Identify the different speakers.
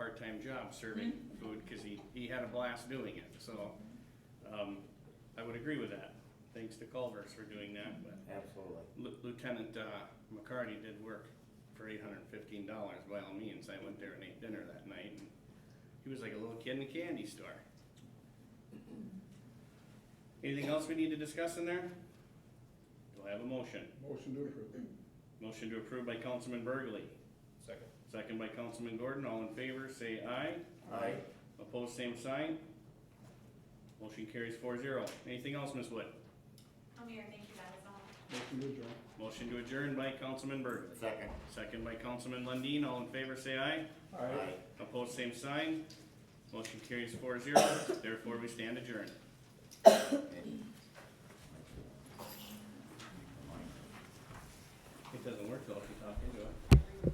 Speaker 1: part-time job serving food, cause he, he had a blast doing it, so, um, I would agree with that. Thanks to Culver's for doing that, but
Speaker 2: Absolutely.
Speaker 1: Lu- Lieutenant, uh, McCarty did work for eight hundred and fifteen dollars by all means. I went there and ate dinner that night and he was like a little kid in a candy store. Anything else we need to discuss in there? Do I have a motion?
Speaker 3: Motion to approve.
Speaker 1: Motion to approve by Councilman Burgley,
Speaker 4: Second.
Speaker 1: second by Councilman Gordon. All in favor, say aye.
Speaker 2: Aye.
Speaker 1: Opposed, same sign. Motion carries four zero. Anything else, Ms. Wood?
Speaker 5: Oh, Mayor, thank you, that was all.
Speaker 3: Motion to adjourn.
Speaker 1: Motion to adjourn by Councilman Burgley.
Speaker 2: Second.
Speaker 1: Second by Councilman Lundin, all in favor say aye.
Speaker 2: Aye.
Speaker 1: Opposed, same sign. Motion carries four zero, therefore we stand adjourned. It doesn't work though if you talk into it.